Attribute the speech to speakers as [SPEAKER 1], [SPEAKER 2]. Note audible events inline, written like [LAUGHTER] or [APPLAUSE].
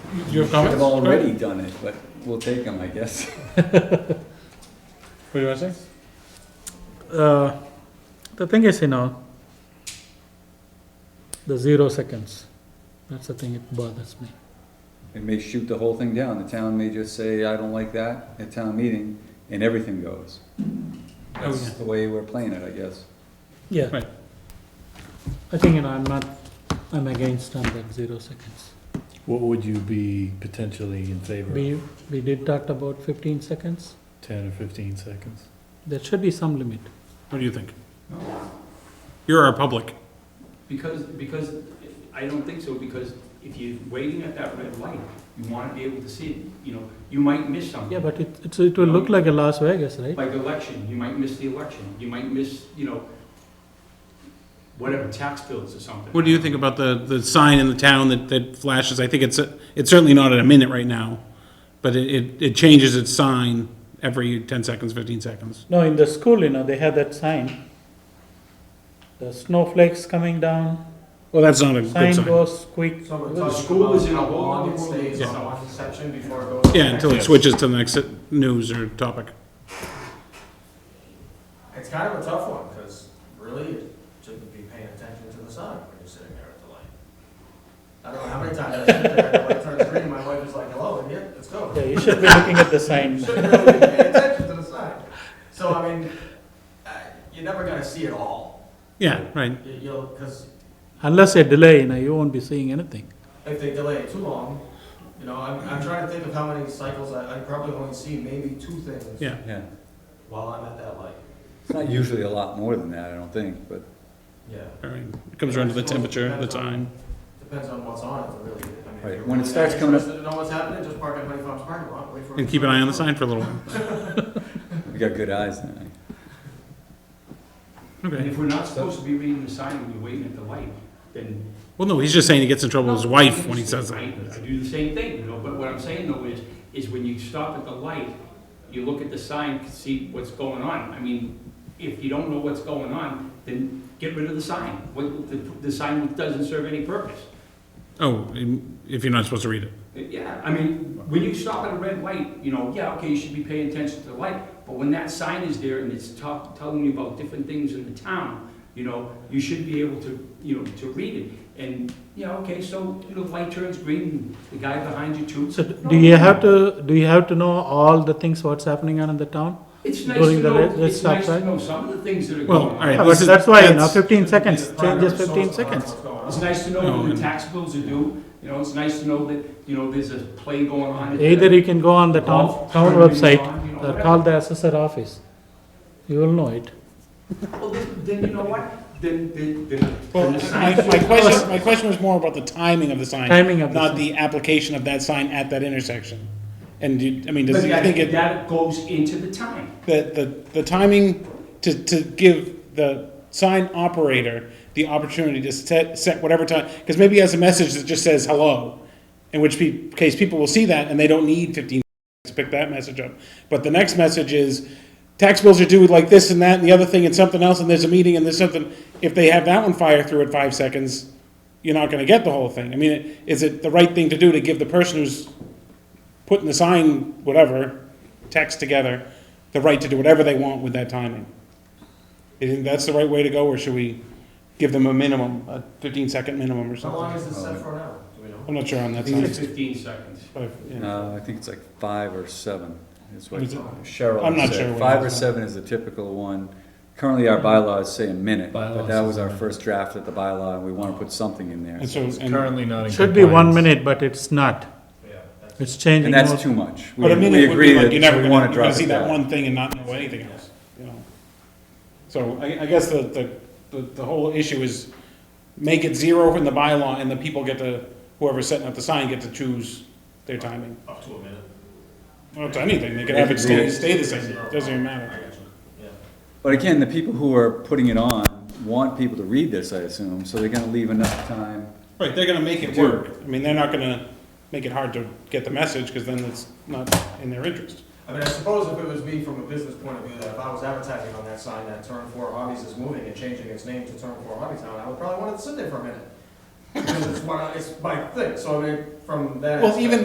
[SPEAKER 1] Do you have comments?
[SPEAKER 2] I've already done it, but we'll take them, I guess. [LAUGHS]
[SPEAKER 1] What do you want to say? Uh, the thing is, you know, the zero seconds, that's the thing that bothers me.
[SPEAKER 2] It may shoot the whole thing down. The town may just say, I don't like that at town meeting, and everything goes.
[SPEAKER 1] Oh,
[SPEAKER 2] That's
[SPEAKER 1] yeah.
[SPEAKER 2] the way we're playing it, I guess.
[SPEAKER 1] Yeah.
[SPEAKER 3] Right.
[SPEAKER 1] I think, you know, I'm not, I'm against on that zero seconds.
[SPEAKER 4] What would you be potentially in favor of,
[SPEAKER 1] We, we did talk about fifteen seconds,
[SPEAKER 4] ten or fifteen seconds?
[SPEAKER 1] there should be some limit.
[SPEAKER 3] What do you think? You're our public.
[SPEAKER 5] Because, because, I don't think so, because if you're waiting at that red light, you wanna be able to see it, you know, you might miss something.
[SPEAKER 1] Yeah, but it, it's, it will look like a Las Vegas, right?
[SPEAKER 5] Like election, you might miss the election, you might miss, you know, whatever, tax bills or something.
[SPEAKER 3] What do you think about the, the sign in the town that, that flashes? I think it's, a- it's certainly not at a minute right now, but it, it, it changes its sign every ten seconds, fifteen seconds.
[SPEAKER 1] No, in the school, you know, they have that sign. The snowflakes coming down,
[SPEAKER 3] Well, that's not a good
[SPEAKER 1] sign
[SPEAKER 3] sign.
[SPEAKER 1] goes quick.
[SPEAKER 6] So we're
[SPEAKER 5] The
[SPEAKER 6] talking
[SPEAKER 5] school is
[SPEAKER 6] about
[SPEAKER 5] in a
[SPEAKER 6] how
[SPEAKER 5] whole
[SPEAKER 6] long
[SPEAKER 5] other
[SPEAKER 6] it
[SPEAKER 5] world.
[SPEAKER 6] stays
[SPEAKER 5] Yeah.
[SPEAKER 6] on one section before it goes. to the
[SPEAKER 3] Yeah, until it
[SPEAKER 4] Yes.
[SPEAKER 6] next.
[SPEAKER 3] switches to the next news or topic.
[SPEAKER 6] It's kind of a tough one, because really, you shouldn't be paying attention to the sun when you're sitting there at the light. I don't know how many times I sit there, and the light turns green, my wife is like, hello, and yet, let's go.
[SPEAKER 1] Yeah, you should be looking at the sign.
[SPEAKER 6] Shouldn't really be paying attention to the sun. So, I mean, uh, you're never gonna see it all.
[SPEAKER 3] Yeah, right.
[SPEAKER 6] You- You'll, because
[SPEAKER 1] Unless they delay, you know, you won't be seeing anything.
[SPEAKER 6] if they delay it too long, you know, I'm, I'm trying to think of how many cycles, I, I probably only see maybe two things
[SPEAKER 3] Yeah.
[SPEAKER 2] Yeah.
[SPEAKER 6] while I'm at that light,
[SPEAKER 2] It's not usually a lot more than that, I don't think, but
[SPEAKER 6] yeah.
[SPEAKER 3] All right. It comes around to the temperature, the time.
[SPEAKER 6] Depends on what's on it, really. I mean, if
[SPEAKER 2] Right,
[SPEAKER 6] you're
[SPEAKER 2] when it
[SPEAKER 6] really
[SPEAKER 2] starts coming up-
[SPEAKER 6] interested To know what's happening, just park at Honey Farms parking lot, wait for. it
[SPEAKER 3] And
[SPEAKER 6] to
[SPEAKER 3] keep an
[SPEAKER 6] come
[SPEAKER 3] eye on
[SPEAKER 6] up.
[SPEAKER 3] the sign for a little while.
[SPEAKER 2] we got good eyes now.
[SPEAKER 5] And
[SPEAKER 3] Okay.
[SPEAKER 5] if we're not supposed to be reading the sign when you're waiting at the light, then
[SPEAKER 3] Well, no, he's just saying he gets in trouble with his wife when he says
[SPEAKER 5] I
[SPEAKER 3] that.
[SPEAKER 5] I do the same thing, you know, but what I'm saying though is, is when you stop at the light, you look at the sign, to see what's going on. I mean, if you don't know what's going on, then get rid of the sign. What, the, the sign doesn't serve any purpose.
[SPEAKER 3] Oh, if you're not supposed to read it.
[SPEAKER 5] Yeah, I mean, when you stop at a red light, you know, yeah, okay, you should be paying attention to the light, but when that sign is there and it's talk, telling you about different things in the town, you know, you should be able to, you know, to read it. And, yeah, okay, so, you know, the light turns green, the guy behind you too.
[SPEAKER 1] So do you have to, do you have to know all the things what's happening on in the town?
[SPEAKER 5] It's nice
[SPEAKER 1] during
[SPEAKER 5] to
[SPEAKER 1] the red-
[SPEAKER 5] know,
[SPEAKER 1] red
[SPEAKER 5] it's
[SPEAKER 1] stop
[SPEAKER 5] nice to
[SPEAKER 1] sign?
[SPEAKER 5] know some of the things that are
[SPEAKER 3] Well,
[SPEAKER 5] going on.
[SPEAKER 3] all right.
[SPEAKER 1] Yeah,
[SPEAKER 3] this
[SPEAKER 1] but
[SPEAKER 3] is-
[SPEAKER 1] that's why, you know,
[SPEAKER 3] that's-
[SPEAKER 1] fifteen
[SPEAKER 6] Be
[SPEAKER 1] seconds,
[SPEAKER 6] the primary
[SPEAKER 1] changes
[SPEAKER 6] source
[SPEAKER 1] fifteen
[SPEAKER 6] of knowing
[SPEAKER 1] seconds.
[SPEAKER 6] what's going on.
[SPEAKER 5] It's nice to know when the tax bills are due, you know, it's nice to know that, you know, there's a play going on. at the-
[SPEAKER 1] Either you can go on the town,
[SPEAKER 5] Golf
[SPEAKER 1] town
[SPEAKER 5] tournament
[SPEAKER 1] website
[SPEAKER 5] on, you know,
[SPEAKER 1] or
[SPEAKER 5] whatever.
[SPEAKER 1] call the assessor office. You will know it.
[SPEAKER 5] Well, then, then you know what, then, then, then.
[SPEAKER 3] Well,
[SPEAKER 5] then the
[SPEAKER 3] my,
[SPEAKER 5] sign
[SPEAKER 3] my
[SPEAKER 5] should-
[SPEAKER 3] question, my question was more about the timing of the sign.
[SPEAKER 1] Timing of the
[SPEAKER 3] Not
[SPEAKER 1] sign.
[SPEAKER 3] the application of that sign at that intersection. And do you, I mean, does,
[SPEAKER 5] But
[SPEAKER 3] it- I
[SPEAKER 5] that,
[SPEAKER 3] think it,
[SPEAKER 5] that goes into the time.
[SPEAKER 3] the, the, the timing to, to give the sign operator the opportunity to set, set whatever time, because maybe he has a message that just says hello, in which pe- case people will see that and they don't need fifteen seconds to pick that message up. But the next message is, tax bills are due like this and that and the other thing and something else, and there's a meeting and there's something, if they have that one fire through at five seconds, you're not gonna get the whole thing. I mean, it- is it the right thing to do to give the person who's putting the sign, whatever, text together, the right to do whatever they want with that timing. You think that's the right way to go, or should we give them a minimum, a fifteen-second minimum or
[SPEAKER 6] How long
[SPEAKER 3] something?
[SPEAKER 6] is this set for now? Do we know?
[SPEAKER 3] I'm not sure on that
[SPEAKER 5] It's like
[SPEAKER 3] sign.
[SPEAKER 5] fifteen seconds.
[SPEAKER 3] But, yeah.
[SPEAKER 2] Uh, I think it's like five or seven, is what
[SPEAKER 3] Was it- I'm
[SPEAKER 2] Cheryl
[SPEAKER 3] not sure what
[SPEAKER 2] said. Five
[SPEAKER 3] it
[SPEAKER 2] or
[SPEAKER 3] is.
[SPEAKER 2] seven is the typical one. Currently, our bylaws say a minute, but
[SPEAKER 4] Bylaws
[SPEAKER 2] that
[SPEAKER 4] is
[SPEAKER 2] was
[SPEAKER 4] a
[SPEAKER 2] our
[SPEAKER 4] minute.
[SPEAKER 2] first draft of the bylaw, and we wanna put something in there.
[SPEAKER 3] And so,
[SPEAKER 4] It's
[SPEAKER 3] and-
[SPEAKER 4] currently not in compliance.
[SPEAKER 1] Should be one minute, but it's not. It's changing.
[SPEAKER 2] And that's
[SPEAKER 1] more.
[SPEAKER 2] too much. We
[SPEAKER 3] but a
[SPEAKER 2] we
[SPEAKER 3] minute would
[SPEAKER 2] agree
[SPEAKER 3] be like,
[SPEAKER 2] that
[SPEAKER 3] you're never
[SPEAKER 2] we wanna
[SPEAKER 3] gonna, you're
[SPEAKER 2] drop
[SPEAKER 3] gonna see
[SPEAKER 2] it
[SPEAKER 3] that
[SPEAKER 2] down.
[SPEAKER 3] one thing and not know anything else, you know? So I, I guess the, the, the, the whole issue is make it zero in the bylaw, and the people get to, whoever's setting up the sign get to choose their timing.
[SPEAKER 6] Up to a minute.
[SPEAKER 3] Well, it's anything, they can have it stay, stay the same, doesn't even
[SPEAKER 6] I
[SPEAKER 3] matter.
[SPEAKER 6] got you. Yeah.
[SPEAKER 2] But again, the people who are putting it on want people to read this, I assume, so they're gonna leave enough time.
[SPEAKER 3] Right, they're gonna make it work. I mean, they're not gonna make it hard to get the message, because then it's not in their interest.
[SPEAKER 6] I mean, I suppose if it was me from a business point of view, that if I was advertising on that sign that Turn Four Hobbies is moving and changing its name to Turn Four Hobby Town, I would probably want it to sit there for a minute. Because it's one, it's my thing, so I mean, from that.
[SPEAKER 3] Well, even,